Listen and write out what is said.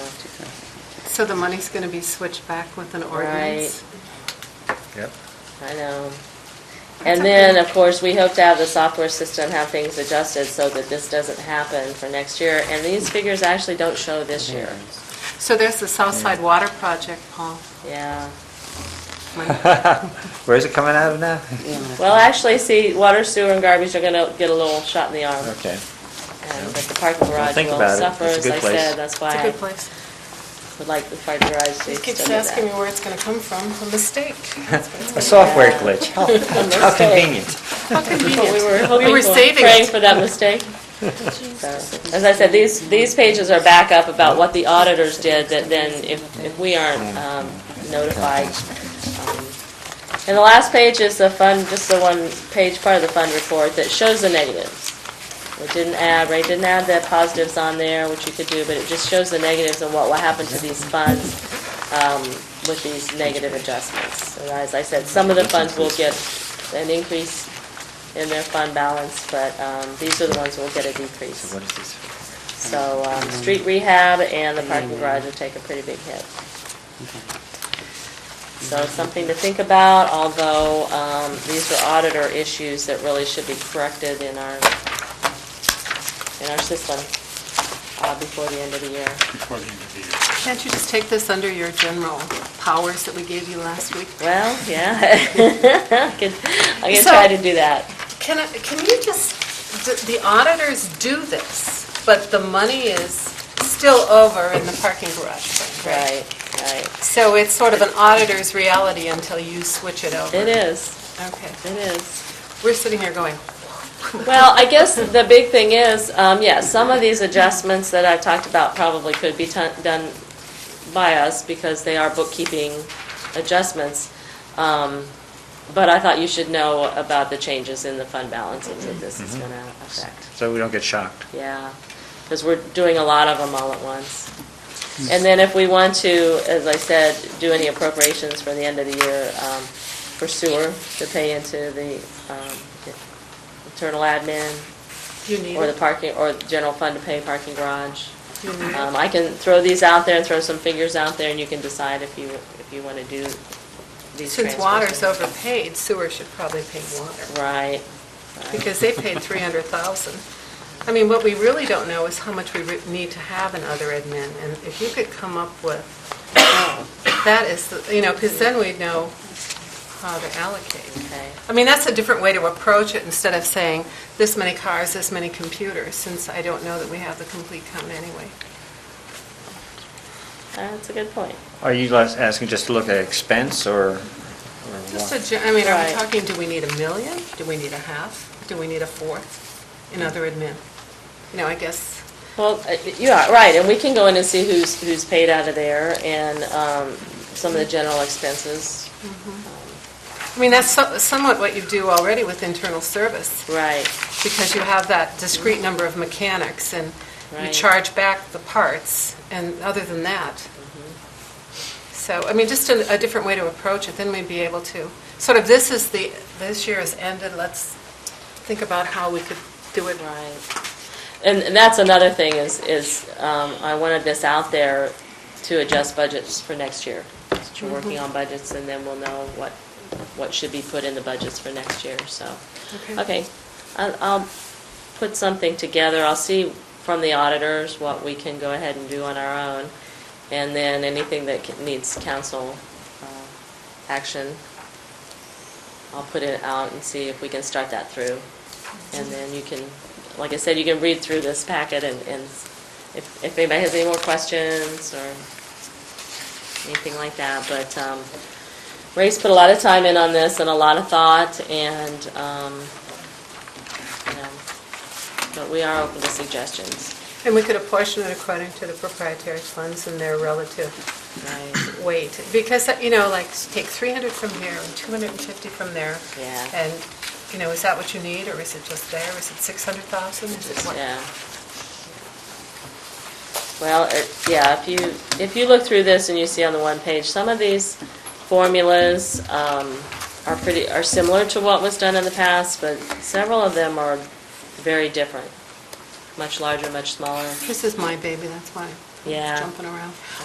So the money's going to be switched back with an ordinance? Yep. I know. That's And then, okay. of course, we hope to have the software system have things adjusted so that this doesn't happen for next year. And these figures actually don't show this year. So there's the Southside Water Project, Paul. Yeah. Where's it coming out of now? Well, actually, see, water, sewer, and garbage are gonna get a little shot in the arm. Okay. And- But the parking garage think will about it. suffer, It's a as good I place. said, that's It's a why good place. I would like the parking garage to still He be keeps asking me that. where it's going to come from, a mistake. That's what it's A gonna be. software glitch. How how convenient. How But we convenient. were hoping were for, saving praying it. for that mistake. So, As I said, these, these pages are backup about what the auditors did, that then if, if we aren't um, notified. um, And the last page is the fund, just the one page part of the fund report that shows the negatives. We didn't add, Ray didn't add the positives on there, which you could do, but it just shows the negatives and what will happen to these funds um, with these negative adjustments. And as I said, some of the funds will get an increase in their fund balance, but um, these are the ones that will get a decrease. So what is this? for? So, um, street rehab and the parking garage will take a pretty big hit. So it's something to think about, although, um, these are auditor issues that really should be corrected in our, in our system, uh, before the end of the year. before the end of the year. Can't you just take this under your general powers that we gave you last week? Well, yeah. I could, I could So- try to do that. Can, I- can you just, d- the auditors do this, but the money is still over in the parking garage thing, right? Right, right. So it's sort of an auditor's reality until you switch it over. It is, Okay. it is. We're sitting here going, Well, I guess the big thing is, um, yeah, some of these adjustments that I've talked about probably could be ton- done by us because they are bookkeeping adjustments. Um, But I thought you should know about the changes in the fund balances that this is going to affect. So we don't get shocked. Yeah, because we're doing a lot of them all at once. And then if we want to, as I said, do any appropriations for the end of the year um, for sewer to pay into the um, internal admin you need or the it. parking, or the general fund to pay parking garage. You need it. Um, I can throw these out there and throw some figures out there and you can decide if you, if you want to do these transfers. Since water's overpaid, sewer should probably pay water. Right, right. because they paid 300,000. I mean, what we really don't know is how much we re- need to have in other admin, and if you could come up with, that is, the- you know, because then we'd know how to allocate. okay. I mean, that's a different way to approach it, instead of saying, this many cars, this many computers, since I don't know that we have the complete count anyway. That's a good point. Are you less- asking just to look at expense or? or Just what? a, gen- I mean, are we Right. talking, do we need a million? Do we need a half? Do we need a fourth in other admin? You know, I guess, Well, uh, you are, right, and we can go in and see who's, who's paid out of there and um, some of the general expenses. I mean, that's so- somewhat what you do already with internal service. Right, because you have that discrete number of mechanics, and you Right. charge back the parts, and other than that. Mm-hmm. So, I mean, just a, a different way to approach it, then we'd be able to, sort of, this is the, this year is ended, let's think about how we could do it. right. And and that's another thing is, is um, I wanted this out there to adjust budgets for next year. That You're working on budgets and then we'll know what, what should be put in the budgets for next year, so. Okay, I'll, I'll put something together, I'll see from the auditors what we can go ahead and do on our own, and then anything that ca- needs council uh, action, I'll put it out and see if we can start that through. And then you can, like I said, you can read through this packet and, and if, if anybody has any more questions or anything like that, but, um, Ray's put a lot of time in on this and a lot of thought, and, um, you know, but we are open to suggestions. And we could apportion it according to the proprietary funds and their relative Right. weight, because, you know, like, take 300 from here and 250 from there. Yeah. And, you know, is that what you need, or is it just there, is it 600,000, is it what? Yeah. Well, it- yeah, if you, if you look through this and you see on the one page, some of these formulas um, are pretty, are similar to what was done in the past, but several of them are very different, much larger, much smaller. This is my baby, that's why Yeah. it's jumping around.